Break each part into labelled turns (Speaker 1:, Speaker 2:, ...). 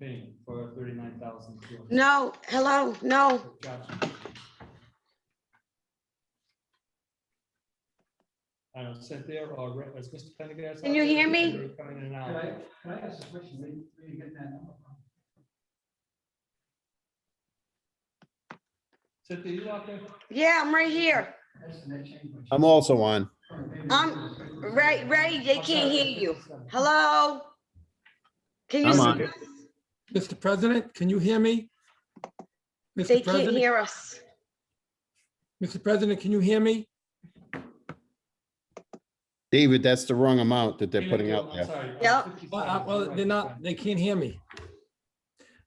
Speaker 1: paying for thirty-nine thousand two hundred.
Speaker 2: No, hello, no,
Speaker 1: I don't know, sent there or re- is Mr. Pendergast?
Speaker 2: Can
Speaker 1: out
Speaker 2: you
Speaker 1: there?
Speaker 2: hear me?
Speaker 1: You're Coming in and
Speaker 3: Can I,
Speaker 1: out.
Speaker 3: can I ask a question? Where you- where you getting that number from?
Speaker 1: Cynthia, you out there?
Speaker 2: yeah, I'm right here.
Speaker 3: That's the net change. which-
Speaker 4: I'm also on.
Speaker 2: Um, Ray, Ray, they can't hear you. Hello? Can you,
Speaker 4: I'm
Speaker 2: see
Speaker 4: on.
Speaker 2: us?
Speaker 5: Mr. President, can you hear me?
Speaker 2: they
Speaker 5: Mr.
Speaker 2: can't
Speaker 5: President,
Speaker 2: hear us.
Speaker 5: Mr. President, can you hear me?
Speaker 4: David, that's the wrong amount that they're
Speaker 1: Give it
Speaker 4: putting
Speaker 1: to
Speaker 4: out
Speaker 1: him,
Speaker 4: there.
Speaker 1: I'm sorry.
Speaker 2: Yeah.
Speaker 1: Uh, 50
Speaker 5: Well, I-
Speaker 1: seconds,
Speaker 5: Well,
Speaker 1: right,
Speaker 5: they're
Speaker 1: right.
Speaker 5: not, they can't hear me.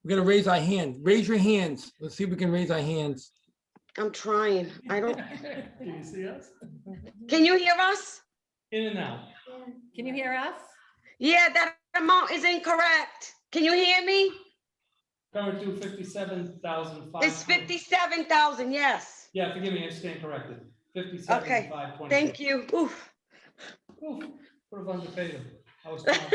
Speaker 5: We're gonna raise our hand. Raise your hands. Let's see if we can raise our hands.
Speaker 2: I'm trying. I don't,
Speaker 1: Can you see us?
Speaker 2: can you hear us?
Speaker 1: In and out.
Speaker 6: Can you hear us?
Speaker 2: Yeah, that amount is incorrect. Can you hear me?
Speaker 1: Current due fifty-seven thousand five.
Speaker 2: It's fifty-seven thousand, yes.
Speaker 1: Yeah, forgive me, I stand corrected. Fifty-seven, five twenty.
Speaker 2: Thank you. Oof.
Speaker 1: Oof, Put it on the table. I was. proud.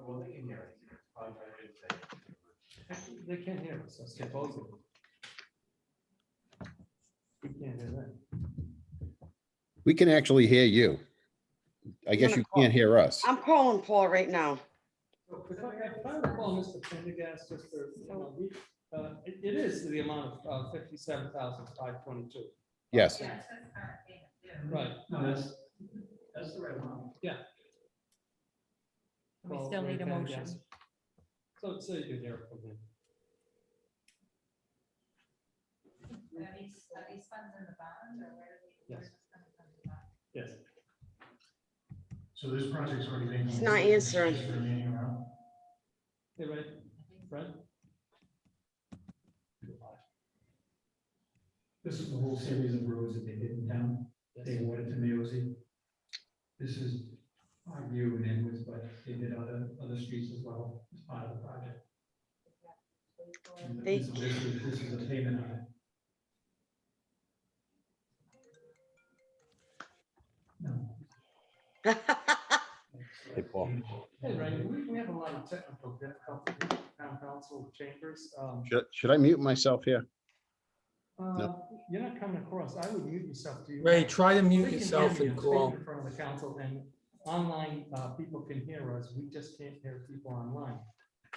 Speaker 3: Well, they can hear it.
Speaker 1: They can't hear us, I skip over. We can't hear that.
Speaker 4: We can actually hear you. I
Speaker 2: I'm
Speaker 4: guess
Speaker 2: gonna
Speaker 4: you
Speaker 2: call.
Speaker 4: can't hear us.
Speaker 2: I'm calling Paul right now.
Speaker 1: If I if I recall, Mr. Pendergast, just for, you know, we, uh, it it is the amount of uh, fifty-seven thousand five twenty-two.
Speaker 6: Mm-hmm.
Speaker 4: Yes.
Speaker 1: Right,
Speaker 3: No, that's, that's the right one.
Speaker 6: We
Speaker 1: Well,
Speaker 6: still
Speaker 1: Ray
Speaker 6: need a motion.
Speaker 1: Pendergast. So, so you can hear it from him.
Speaker 7: Are these, are these funds in the bond or where are they?
Speaker 1: Yes. Yes,
Speaker 3: So this project's already been.
Speaker 2: It's not answering.
Speaker 3: It's remaining around.
Speaker 1: hey, Ray, Brett?
Speaker 3: This is the whole series of roads that they did in town. They
Speaker 1: Yes.
Speaker 3: awarded to Mayosi. This is our view and inwards, but they did other, other streets as well as part of the project. And
Speaker 2: They-
Speaker 3: This is this is a payment on it. No.
Speaker 4: Hey, Paul.
Speaker 1: Hey, Ray, we, we have a lot of technical difficulties, with town council chambers, um.
Speaker 4: Should, should I mute myself here?
Speaker 1: Uh, You're not coming across. I would mute yourself to you.
Speaker 5: Ray, try to
Speaker 1: We
Speaker 5: mute
Speaker 1: can
Speaker 5: yourself
Speaker 1: hear you.
Speaker 5: and
Speaker 1: Speak
Speaker 5: call.
Speaker 1: In front of the council and online, uh, people can hear us. We just can't hear people online.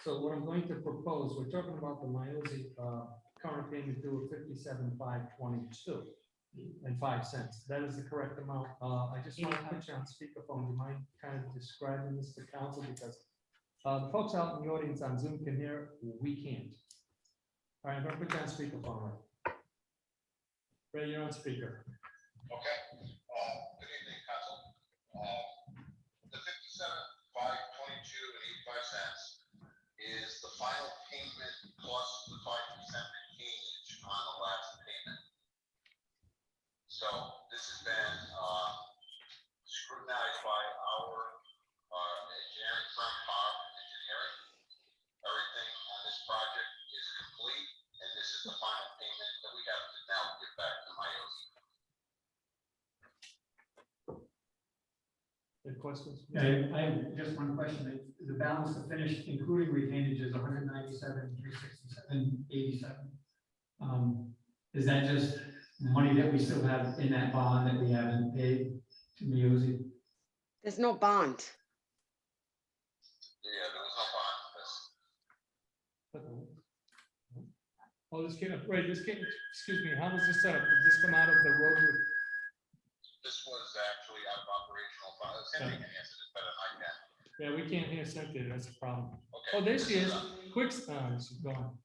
Speaker 1: So what I'm going to propose, we're talking about the Miozy, uh, current payment due of fifty-seven, five, twenty-two and five cents. That is the correct amount. Uh, I just want to put you on speakerphone. Do you mind kind of describing this to council because uh, the folks out in the audience on Zoom can hear, we can't. All right, I'm gonna put you on speakerphone. Ray, Ray, you're on speaker.
Speaker 8: Okay, uh, good evening, council. Uh, The fifty-seven, five twenty-two and eighty-five cents is the final payment plus the five percent change on the last payment. So this has been, uh, scrutinized by our, uh, engineering firm, Power Engineering. Everything on this project is complete, and this is the final payment that we have to now give back to Miozy.
Speaker 1: Any questions?
Speaker 3: Yeah, I I have just one question. The the balance of finished, including retainage, is 197, 367, 87. Um, Is that just money that we still have in that bond that we haven't paid to Miozy?
Speaker 2: There's no bond.
Speaker 8: Yeah, there was no bond for this.
Speaker 1: Oh, this came, up- right, this came, excuse me, how was this set up? Did this come out of the road? with-
Speaker 8: This was actually out of operational funds. Cindy can answer this better than I can.
Speaker 1: Yeah, we can't hear Cynthia, that's a problem.
Speaker 8: Okay.
Speaker 1: Oh, there she
Speaker 8: this
Speaker 1: is,
Speaker 8: uh,
Speaker 1: quick, uh, she's gone.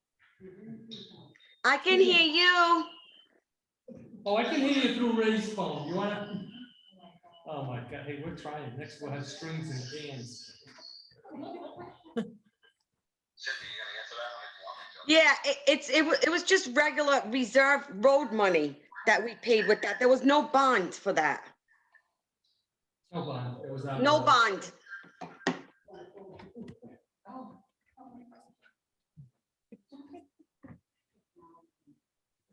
Speaker 2: I can hear you.
Speaker 1: Oh, I can hear you through Ray's phone, you wanna? Oh my God, hey, we're trying, next we'll have strings and bands.
Speaker 8: Cindy, you gonna answer that one if you want me to?
Speaker 2: Yeah, it, it's, it was, it was just regular reserve road money that we paid with that. There was no bond for that.
Speaker 1: No bond, it was. out of
Speaker 2: No
Speaker 1: the-
Speaker 2: bond.